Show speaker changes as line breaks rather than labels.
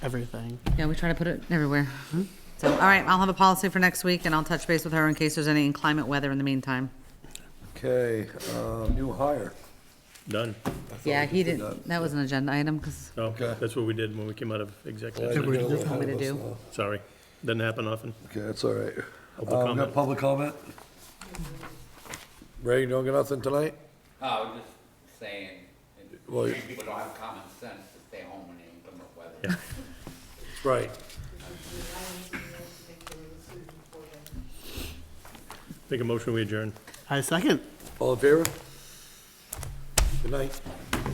everything.
Yeah, we try to put it everywhere. So, all right, I'll have a policy for next week and I'll touch base with her in case there's any inclement weather in the meantime.
Okay, uh, new hire.
Done.
Yeah, he
did
didn't, that was an agenda item because
No,
Okay.
that's what we did when we came out of executive.
Glad you
session.
got a little
told me
ahead
to
of us
do.
now.
Sorry, doesn't happen often.
Okay, that's all right.
Public
Uh, we got
comment.
public comment? Ray, you don't get nothing tonight?
I was Oh, just saying, it-
Well, you-
people don't have common sense to stay home when they inclement weather.
Right.
Make a motion, we adjourn.
I second.
All in favor? Good night.